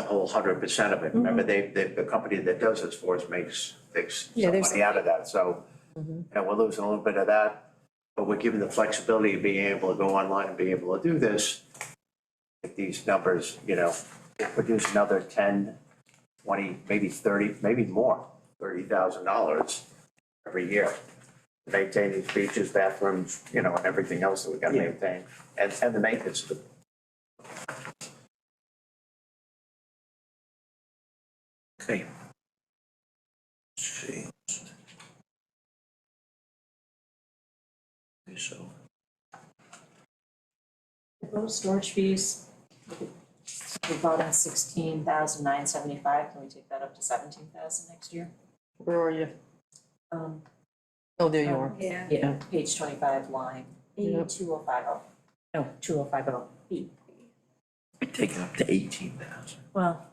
whole hundred percent of it. Remember, they, they, the company that does this for us makes, makes Yeah, some there's- money out of that, so. You know, we're losing a little bit of that, but we're given the flexibility of being able to go online and be able to do this. If these numbers, you know, produce another ten, twenty, maybe thirty, maybe more, thirty thousand dollars every year. to Maintain these beaches, bathrooms, you know, and everything else that we gotta maintain, and, and the maintenance of the Okay. Let's see. Okay, so. Proposed storage fees, we brought in sixteen thousand nine seventy-five, can we take that up to seventeen thousand next year? Where are you? Um, Oh, there you are. Yeah. yeah, page twenty-five, line Yep. two oh five oh. No, two oh five oh. E. Take it up to eighteen thousand. Well.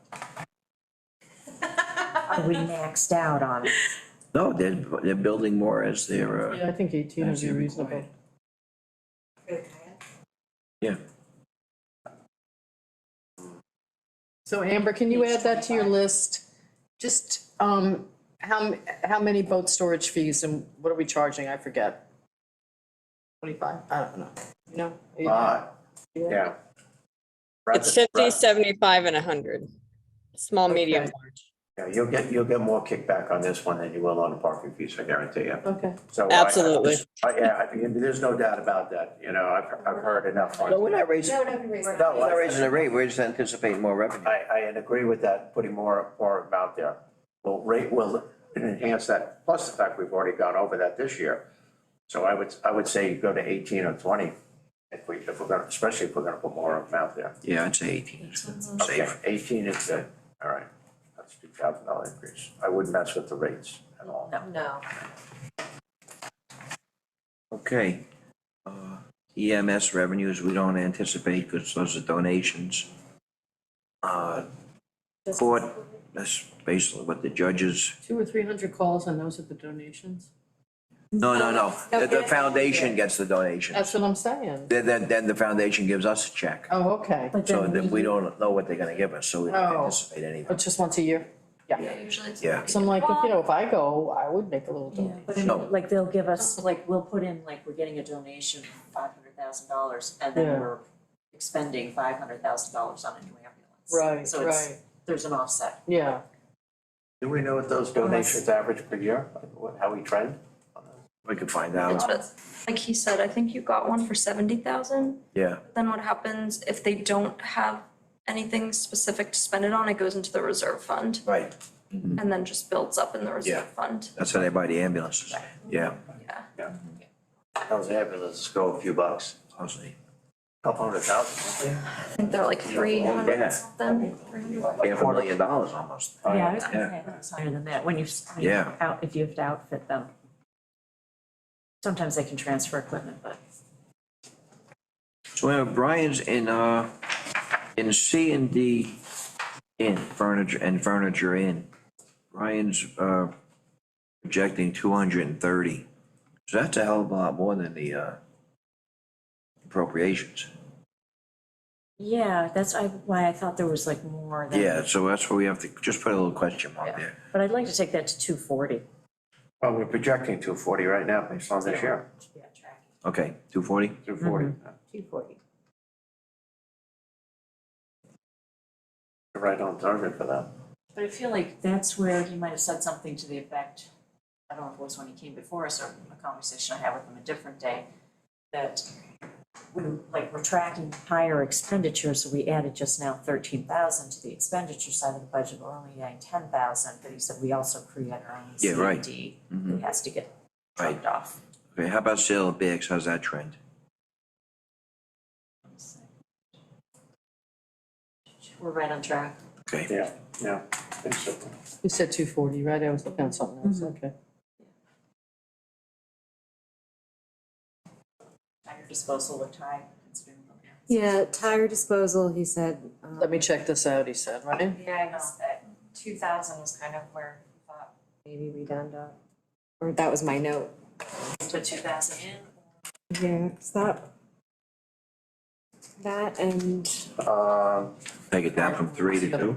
Are we maxed out on it? No, they're, they're building more as they're, uh, Yeah, I think eighteen would As be you reasonable. required. Yeah. Yeah. So Amber, can you add that to your list? Just, um, how, m- how many boat storage fees and what are we charging? I forget. Twenty-five? I don't know. You know? You- Ah, yeah. It's Rather- 50, 75, and 100. Small, medium, Okay. large. Yeah, you'll get, you'll get more kickback on this one than you will on the parking fees, I guarantee you. Okay. So. I- I- Absolutely. I- Yeah, I mean, there's no doubt about that, you know, I've, I've heard enough. on- But we're not raising, No, no, we raised it. No, we're not raising the rate, we're just anticipating more revenue. I, I agree with that, putting more, more amount there. Well, rate will enhance that, plus the fact we've already gone over that this year. So I would, I would say go to eighteen or twenty, if we, if we're gonna, especially if we're gonna put more amount there. Yeah, I'd say eighteen is Okay, safe. eighteen is good, all right, that's two thousand dollar increase, I wouldn't mess with the rates at all. No, no. Okay. Uh, EMS revenues, we don't anticipate because those are donations. Uh, Court, that's basically what the judges, Two or three hundred calls and those are the donations? no, no, no, the, the foundation gets the donation. That's what I'm saying. Then, then, then the foundation gives us a check. Oh, okay. But So then that we don't know what they're gonna give us, so we don't Oh. anticipate anything, But just once a year? Yeah. Usually it's. yeah. So I'm like, if, you know, if I go, I would make a little Yeah, donation. but I mean, No. like they'll give us, like, we'll put in, like, we're getting a donation of five hundred thousand dollars and Yeah. then we're expending five hundred thousand dollars on a new ambulance. Right, So it's, right. there's an offset. Yeah. Do we know what those donations average per year, What- how we trend? We could find out, Like he said, I think you got one for seventy thousand, yeah. but then what happens if they don't have anything specific to spend it on, it goes into the reserve fund Right. and then just builds up in the Yeah. reserve fund, That's how they buy the ambulances, yeah, yeah. How's that, let's go a few bucks, honestly. couple hundred thousand. I think they're like three yeah. hundred something, three hundred. Half a million dollars almost. Yeah, I was gonna Yeah. say, I think it's higher than that, when you, s- when you Yeah. out, if you have to outfit them. Sometimes they can transfer equipment, but. So we have Brian's in, uh, in C and D in furniture, and furniture in. Brian's, uh, projecting two hundred and thirty. So that's a hell of a lot more than the, uh, appropriations. Yeah, that's I- why I thought there was like more than. Yeah, so that's where we have to just put a little question mark there. But I'd like to take that to two forty. Well, we're projecting two forty right now, based on this year, Yeah, tracking. Okay, two forty? two forty. Two forty. Right on target for that. But I feel like that's where he might have said something to the effect, I don't know if it was when he came before us or a conversation I had with him a different day, that we, like, we're tracking higher expenditures, so we added just now thirteen thousand to the expenditure side of the budget, we're only adding ten thousand, but he said we also create our own Yeah, right. Mm-hmm. CFD. It has to get Right. dropped off. Okay, how about sale of bags, how's that trend? We're right on track. Okay, Yeah, yeah, I think so. You said two forty, right? I was looking at something else, okay. Higher disposal with high considering. the- Yeah, tire disposal, he said. um, Let me check this out, he said, right? Yeah, I know, that two thousand was kind of where we thought Maybe we done up. Or that was my note. put two thousand in. Yeah, is that? That and. Um, take it down from three to two.